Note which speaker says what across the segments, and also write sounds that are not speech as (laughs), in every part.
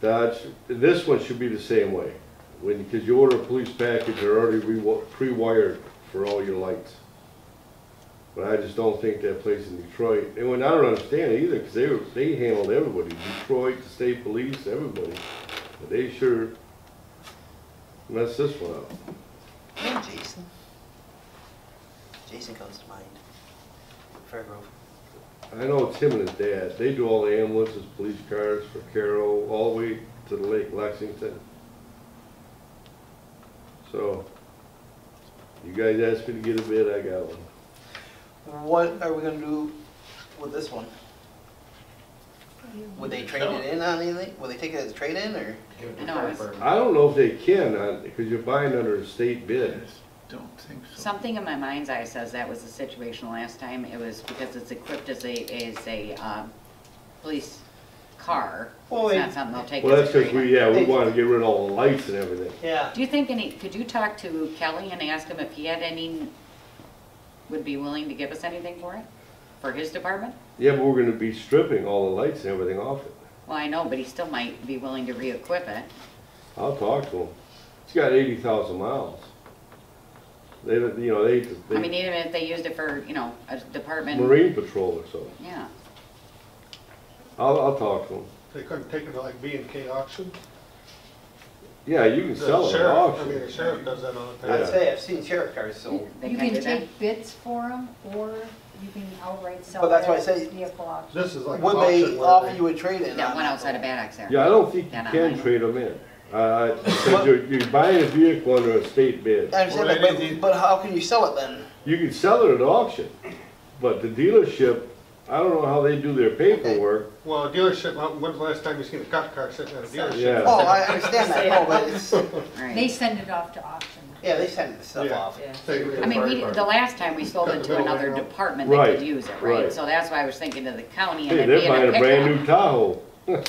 Speaker 1: Dodge, this one should be the same way. When, because you order a police package, they're already rewi- pre-wired for all your lights. But I just don't think that place in Detroit, and when, I don't understand it either, because they, were- they handled everybody, Detroit, the state police, everybody. But they sure messed this one up.
Speaker 2: And Jason. Jason comes to mind. Fairgrove.
Speaker 1: I know Tim and his dad, they do all the ambulances, police cars for Carroll, all the way to the Lake Lexington. So, you guys asked me to get a bid, I got one.
Speaker 2: What are we gonna do with this one? Would they trade it in on anything? Would they take it as a trade-in or?
Speaker 3: Give it to
Speaker 4: No,
Speaker 3: Fred
Speaker 4: it's-
Speaker 3: Berman.
Speaker 1: I don't know if they can, because you're buying under a state bid.
Speaker 5: Don't think so.
Speaker 4: Something in my mind's eye says that was the situation last time. It was because it's equipped as a, as a, um, police car.
Speaker 2: Well,
Speaker 4: It's not
Speaker 2: it-
Speaker 4: something they'll take
Speaker 1: Well, that's
Speaker 4: as a
Speaker 1: because we,
Speaker 4: trade
Speaker 1: yeah, we wanted to get rid of all the lights and everything.
Speaker 2: Yeah.
Speaker 4: Do you think any, could you talk to Kelly and ask him if he had any, would be willing to give us anything for it? For his department?
Speaker 1: Yeah, but we're gonna be stripping all the lights and everything off it.
Speaker 4: Well, I know, but he still might be willing to re-equip it.
Speaker 1: I'll talk to them. It's got eighty thousand miles. They, don't- you know, they,
Speaker 4: I mean,
Speaker 1: they,
Speaker 4: even if they used it for, you know, a department.
Speaker 1: Marine Patrol or something.
Speaker 4: Yeah.
Speaker 1: I'll, I'll talk to them.
Speaker 6: They couldn't take it to like B and K auction?
Speaker 1: Yeah, you can
Speaker 6: The
Speaker 1: sell it at
Speaker 6: sheriff- I
Speaker 1: auction.
Speaker 6: mean, the sheriff does that all the
Speaker 1: Yeah.
Speaker 2: I'd
Speaker 6: time.
Speaker 2: say I've seen sheriff cars sold.
Speaker 4: They
Speaker 7: You
Speaker 4: can do
Speaker 7: can
Speaker 4: that.
Speaker 7: take bids for them, or you can outright sell
Speaker 2: But that's
Speaker 7: it
Speaker 2: why I
Speaker 7: as
Speaker 2: say-
Speaker 7: vehicle auction.
Speaker 6: This is like an
Speaker 2: Would they
Speaker 6: auction
Speaker 2: offer
Speaker 6: where
Speaker 2: you a trade-in on
Speaker 4: That one
Speaker 2: that
Speaker 4: outside of
Speaker 2: one?
Speaker 4: Bad Axe there.
Speaker 1: Yeah, I don't think you
Speaker 4: Then I
Speaker 1: can
Speaker 4: might-
Speaker 1: trade them in. Uh, because you're, you're buying a vehicle under a state bid.
Speaker 2: I understand
Speaker 6: Well,
Speaker 2: that,
Speaker 6: they
Speaker 2: but,
Speaker 6: did-
Speaker 2: but how can you sell it then?
Speaker 1: You can sell it at auction, but the dealership, I don't know how they do their paperwork.
Speaker 6: they, well, a dealership, when- when's the last time you seen a cop car sitting at a
Speaker 1: Yeah.
Speaker 6: dealership?
Speaker 2: Oh, I understand that, no, but (laughs) it's,
Speaker 4: Right.
Speaker 7: They send it off to auction.
Speaker 2: yeah, they send the stuff
Speaker 6: Yeah.
Speaker 2: off.
Speaker 6: Take it to
Speaker 4: I mean, we,
Speaker 6: Fred
Speaker 4: the last time we sold it to another department that
Speaker 1: Right,
Speaker 4: could use it,
Speaker 1: right.
Speaker 4: right? So that's why I was thinking of the county and
Speaker 1: Hey,
Speaker 4: it
Speaker 1: they're
Speaker 4: being
Speaker 1: buying a brand
Speaker 4: a
Speaker 1: new Tahoe.
Speaker 4: pickup,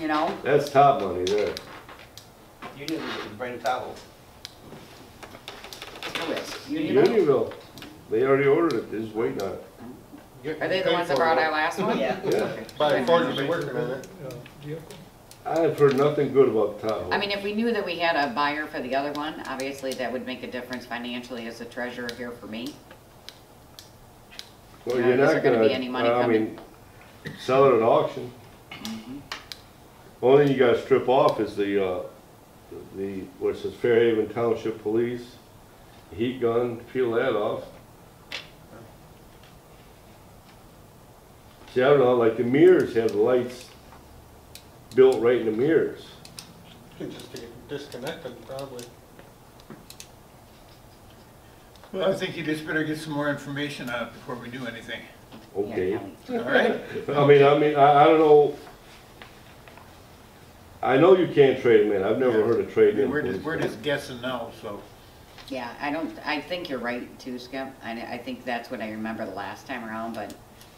Speaker 4: you know?
Speaker 1: That's top money there.
Speaker 2: You knew it was brand new Tahoe.
Speaker 4: Who is? Unionville?
Speaker 1: Unionville, they already ordered it, they're just waiting on it.
Speaker 6: Berman.
Speaker 4: Are they the
Speaker 6: Paid
Speaker 4: ones that
Speaker 6: for
Speaker 4: brought
Speaker 6: it.
Speaker 4: our last one?
Speaker 2: Yeah.
Speaker 1: Yeah,
Speaker 6: By Ford, you've been working on it.
Speaker 1: I've heard nothing good about the Tahoe.
Speaker 4: I mean, if we knew that we had a buyer for the other one, obviously that would make a difference financially as a treasurer here for me.
Speaker 1: Well,
Speaker 4: Yeah,
Speaker 1: you're
Speaker 4: is there
Speaker 1: not
Speaker 4: gonna
Speaker 1: gonna,
Speaker 4: be any money
Speaker 1: I
Speaker 4: coming?
Speaker 1: mean, sell it at auction. Only thing you gotta strip off is the, uh, the, what it says Fairhaven Township Police, heat gun, peel that off. See, I don't know, like the mirrors have the lights built right in the mirrors.
Speaker 6: You can just get it disconnected, probably.
Speaker 5: Well, I think you just better get some more information on it before we do anything,
Speaker 4: Yeah,
Speaker 1: Okay.
Speaker 4: Kelly.
Speaker 5: all right?
Speaker 1: I mean, I mean, I, I don't know. I know you can't trade them in. I've never heard of trading in.
Speaker 5: We're
Speaker 1: police
Speaker 5: just, we're
Speaker 1: cars.
Speaker 5: just guessing now, so.
Speaker 4: Yeah, I don't, I think you're right too, Skip. I, I think that's what I remember the last time around, but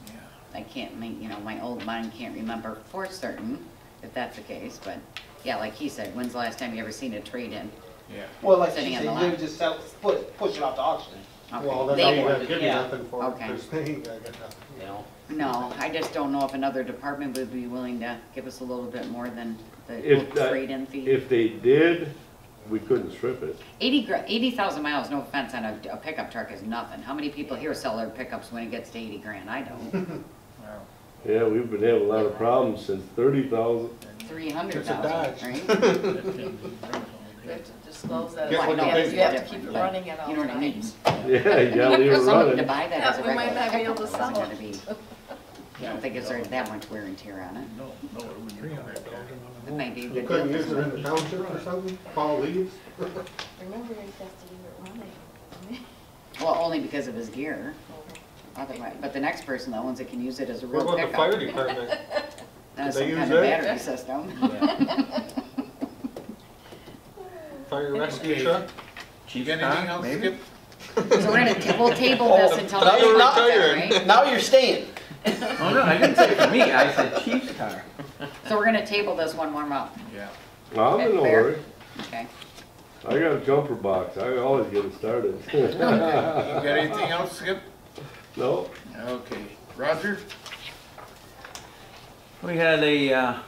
Speaker 5: yeah.
Speaker 4: I can't make, you know, my old mind can't remember for certain if that's the case, but yeah, like he said, when's the last time you ever seen a trade-in?
Speaker 5: Yeah.
Speaker 2: Well, like
Speaker 4: Sitting
Speaker 2: you
Speaker 4: in
Speaker 2: said,
Speaker 4: the
Speaker 2: you
Speaker 4: lot.
Speaker 2: just sell, put, push it off to auction,
Speaker 4: Okay,
Speaker 6: Well, then
Speaker 4: they
Speaker 6: they
Speaker 4: were-
Speaker 6: won't give you
Speaker 2: yeah.
Speaker 6: nothing for it.
Speaker 4: Okay.
Speaker 6: There's- they ain't gonna get nothing.
Speaker 2: you know?
Speaker 4: No, I just don't know if another department would be willing to give us a little bit more than the
Speaker 1: If that-
Speaker 4: trade-in fee.
Speaker 1: If they did, we couldn't strip it.
Speaker 4: Eighty gra, eighty thousand miles, no offense, on a, a pickup truck is nothing. How many people here sell their pickups when it gets to eighty grand? I don't.
Speaker 5: Wow.
Speaker 1: Yeah, we've been having a lot of problems since thirty thousand. (laughs)
Speaker 4: Three hundred
Speaker 6: It's a Dodge.
Speaker 4: thousand, right?
Speaker 8: You have to disclose that.
Speaker 5: Get
Speaker 4: Well, I
Speaker 5: one
Speaker 4: know,
Speaker 5: of
Speaker 4: it's
Speaker 5: these.
Speaker 8: You have to
Speaker 4: different,
Speaker 8: keep
Speaker 4: but
Speaker 8: running it all
Speaker 4: You know what I mean?
Speaker 8: times.
Speaker 1: Yeah, you gotta leave it
Speaker 4: For somebody to
Speaker 1: running.
Speaker 4: buy that as a
Speaker 8: Yeah, we might
Speaker 4: regular
Speaker 8: not be able
Speaker 4: pickup
Speaker 8: to
Speaker 4: wasn't
Speaker 8: sell
Speaker 4: gonna
Speaker 8: it.
Speaker 4: be, I don't think it's there's that much wear and tear on it.
Speaker 5: No, no, it wouldn't be correct.
Speaker 4: It might be a
Speaker 6: You
Speaker 4: good
Speaker 6: couldn't
Speaker 4: deal.
Speaker 6: use it in the township or something, fall leaves?
Speaker 8: Remember, you have to do it running.
Speaker 4: Well, only because of his gear, otherwise, but the next person, the ones that can use it as a
Speaker 6: What
Speaker 4: real
Speaker 6: about the fire
Speaker 4: pickup.
Speaker 6: department?
Speaker 4: That's
Speaker 6: They
Speaker 4: some
Speaker 6: use
Speaker 4: kind of
Speaker 6: that?
Speaker 4: battery system.
Speaker 6: (laughs)
Speaker 4: (laughs)
Speaker 6: Fire rescue
Speaker 5: Okay.
Speaker 6: truck?
Speaker 5: Chief, anything else,
Speaker 3: maybe?
Speaker 5: Skip?
Speaker 4: So we're gonna, ta- we'll table
Speaker 6: Oh,
Speaker 4: this until
Speaker 2: Now
Speaker 4: next
Speaker 2: you're not-
Speaker 4: month, then, right?
Speaker 2: Now you're staying.
Speaker 3: Oh, no, I didn't say for me, I said chief's car.
Speaker 4: So we're gonna table this one more month,
Speaker 5: Yeah.
Speaker 1: I'm in a
Speaker 4: Fair.
Speaker 1: hurry.
Speaker 4: okay?
Speaker 1: I got a jumper box. I always get it started. (laughs)
Speaker 5: You got anything else, Skip?
Speaker 1: No?
Speaker 5: Okay. Roger?
Speaker 3: (laughs) We had a, uh,